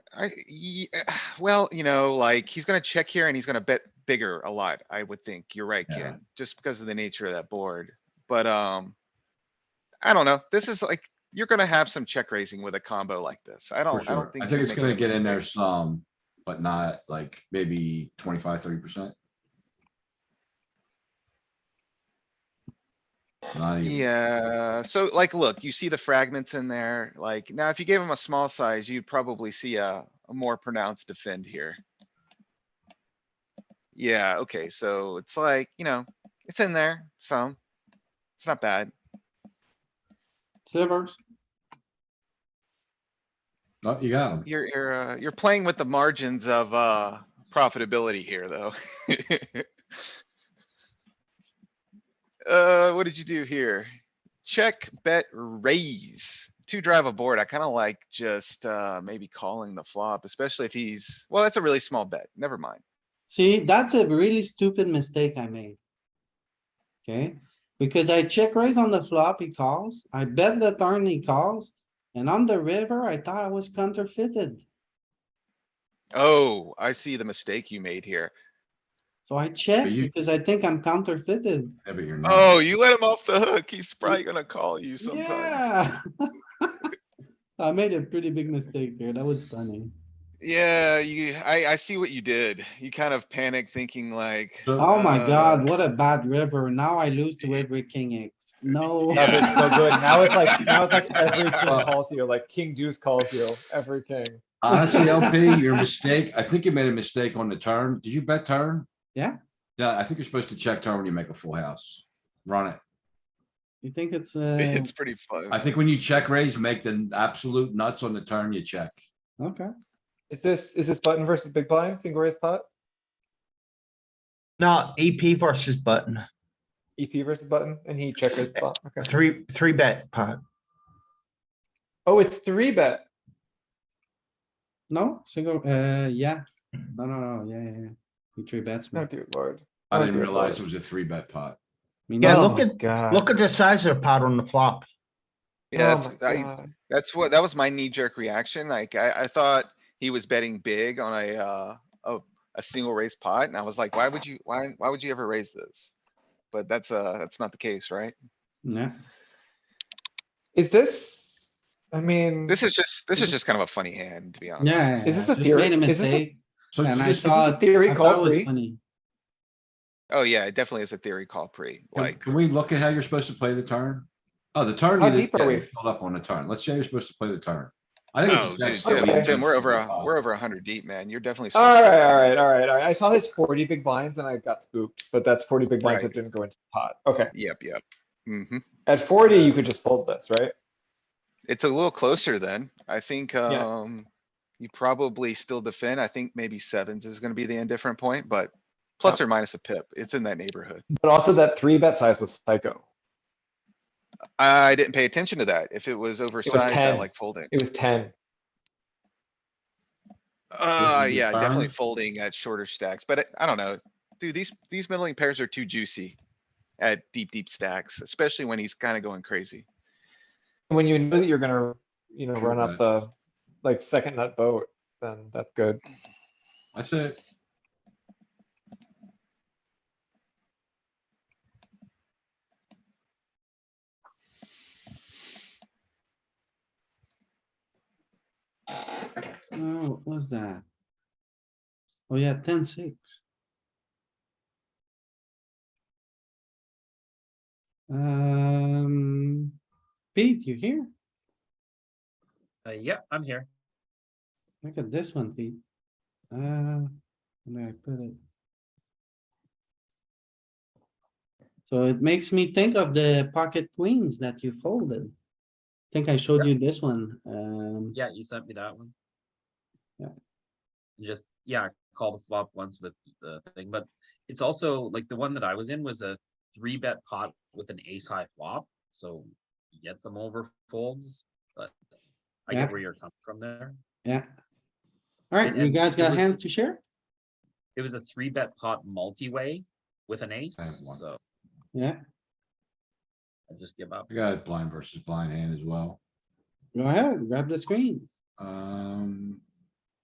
I, ye- eh, well, you know, like, he's gonna check here and he's gonna bet bigger a lot, I would think. You're right, Yeah. Ken, just because of the nature of that board, but, um. I don't know. This is like, you're gonna have some check raising with a combo like this. I For don't, I sure. don't think. I you're think it's making gonna a get in there mistake. some, but not like maybe 25, 30 percent. Not even, Yeah, so like, look, you see the fragments in there, like, now if you gave him a small size, you'd probably see a, a more pronounced defend here. Yeah, okay, so it's like, you know, it's in there, so it's not bad. Slivers, no, Oh, you got him. You're, you're, uh, you're playing with the margins of, uh, profitability here, though. Uh, what did you do here? Check, bet, raise. To drive a board, I kinda like just, uh, maybe calling the flop, especially if he's, well, that's a really small bet. Never mind. see, that's a really stupid mistake I made. Okay, because I check raise on the flop, he calls, I bet the turn he calls, and on the river, I thought I was counterfeited. Oh, I see the mistake you made here. So I check But you- because I think I'm counterfeited. Yeah, but you're not. Oh, you let him off the hook. He's probably gonna call you sometime. Yeah. I made a pretty big mistake there. That was funny. Yeah, you, I, I see what you did. You kind of panicked thinking like. So- Oh my uh, god, what a bad river. Now I lose to every king X. No. Love it so good. Now it's like, now it's like every king Well- calls you, like king deuce calls you, every king. Honestly, LP, E your mistake, I think you made a mistake on the turn. Did you bet turn? Yeah. Yeah, I think you're supposed to check turn when you make a full house. Run it. You think it's, uh, It's pretty Um, I fun. think when you check raise, make the absolute nuts on the turn, you check. okay, Is this, is this button versus big blind, single raise pot, No, EP versus button, EP E versus button, and he check raised pot, okay. three, three bet pot. Oh, it's three bet. no, single, uh, yeah, no, no, no, yeah, yeah, yeah. You three bets. No, me. dude, lord. I Oh, didn't dear realize it lord. was a three bet pot. Me Yeah, no. look Oh at- God. Look at the size of the pot on the flop. Yeah, Oh it's- my I- God. That's what, that was my knee jerk reaction. Like, I, I thought he was betting big on a, uh, a, a single raise pot and I was like, why would you, why, why would you ever raise this? But that's, uh, that's not the case, right? Yeah, Is this, I mean, This is just, this is just kind of a funny hand, to be honest. yeah. Is this I a just theory? Made a Is this a- mistake So and I just, thought. theory I call thought it was free? funny. Oh, yeah, it definitely is a theory call pre, can, like, can we look at how you're supposed to play the turn? Oh, the turn, How you didn't deep are get we? it, filled up on the turn. Let's say you're supposed to play the turn. I think no, it's. dude, just Tim, actually- Tim, Oh, Tim, we're over, a we're over a hundred deep, man. You're definitely. supposed to- alright, alright, alright, alright. I saw his forty big blinds and I got spooked, but that's forty big blinds that Right. didn't go into the pot. Okay, Yep, yep. Mm-hmm. at forty, you could just fold this, right? It's a little closer then. I think, Yeah. um, you probably still defend. I think maybe sevens is gonna be the indifferent point, but plus or minus a pip, it's in that neighborhood. But also that three bet size was psycho. I didn't pay attention to that. If it was oversized, I 10. like folding. It was ten. Uh, the yeah, definitely turn? folding at shorter stacks, but uh, I- I don't know. Dude, these, these middling pairs are too juicy at deep, deep stacks, especially when he's kinda going crazy. When you know that you're gonna, you know, Sure run bet. up the, like, second nut boat, then that's good. That's it. Oh, what was that? Oh, yeah, ten six. Um, Pete, you here? Uh, yeah, I'm here. Look at this one, Pete. Uh, where I put it? So it makes me think of the pocket queens that you folded. Think I showed you this one, um, Yeah, you sent me that one. Yeah. You Just, yeah, call the flop once with the thing, but it's also like the one that I was in was a three bet pot with an ace high flop, so you get some over folds, but I Yeah. get where you're coming from there. yeah. Alright, And- you and guys it got was- hands to share? It was a three bet pot multi-way with an ace, one. so Yeah, I just give up. I got blind versus blind hand as well. go ahead, grab the screen. Um,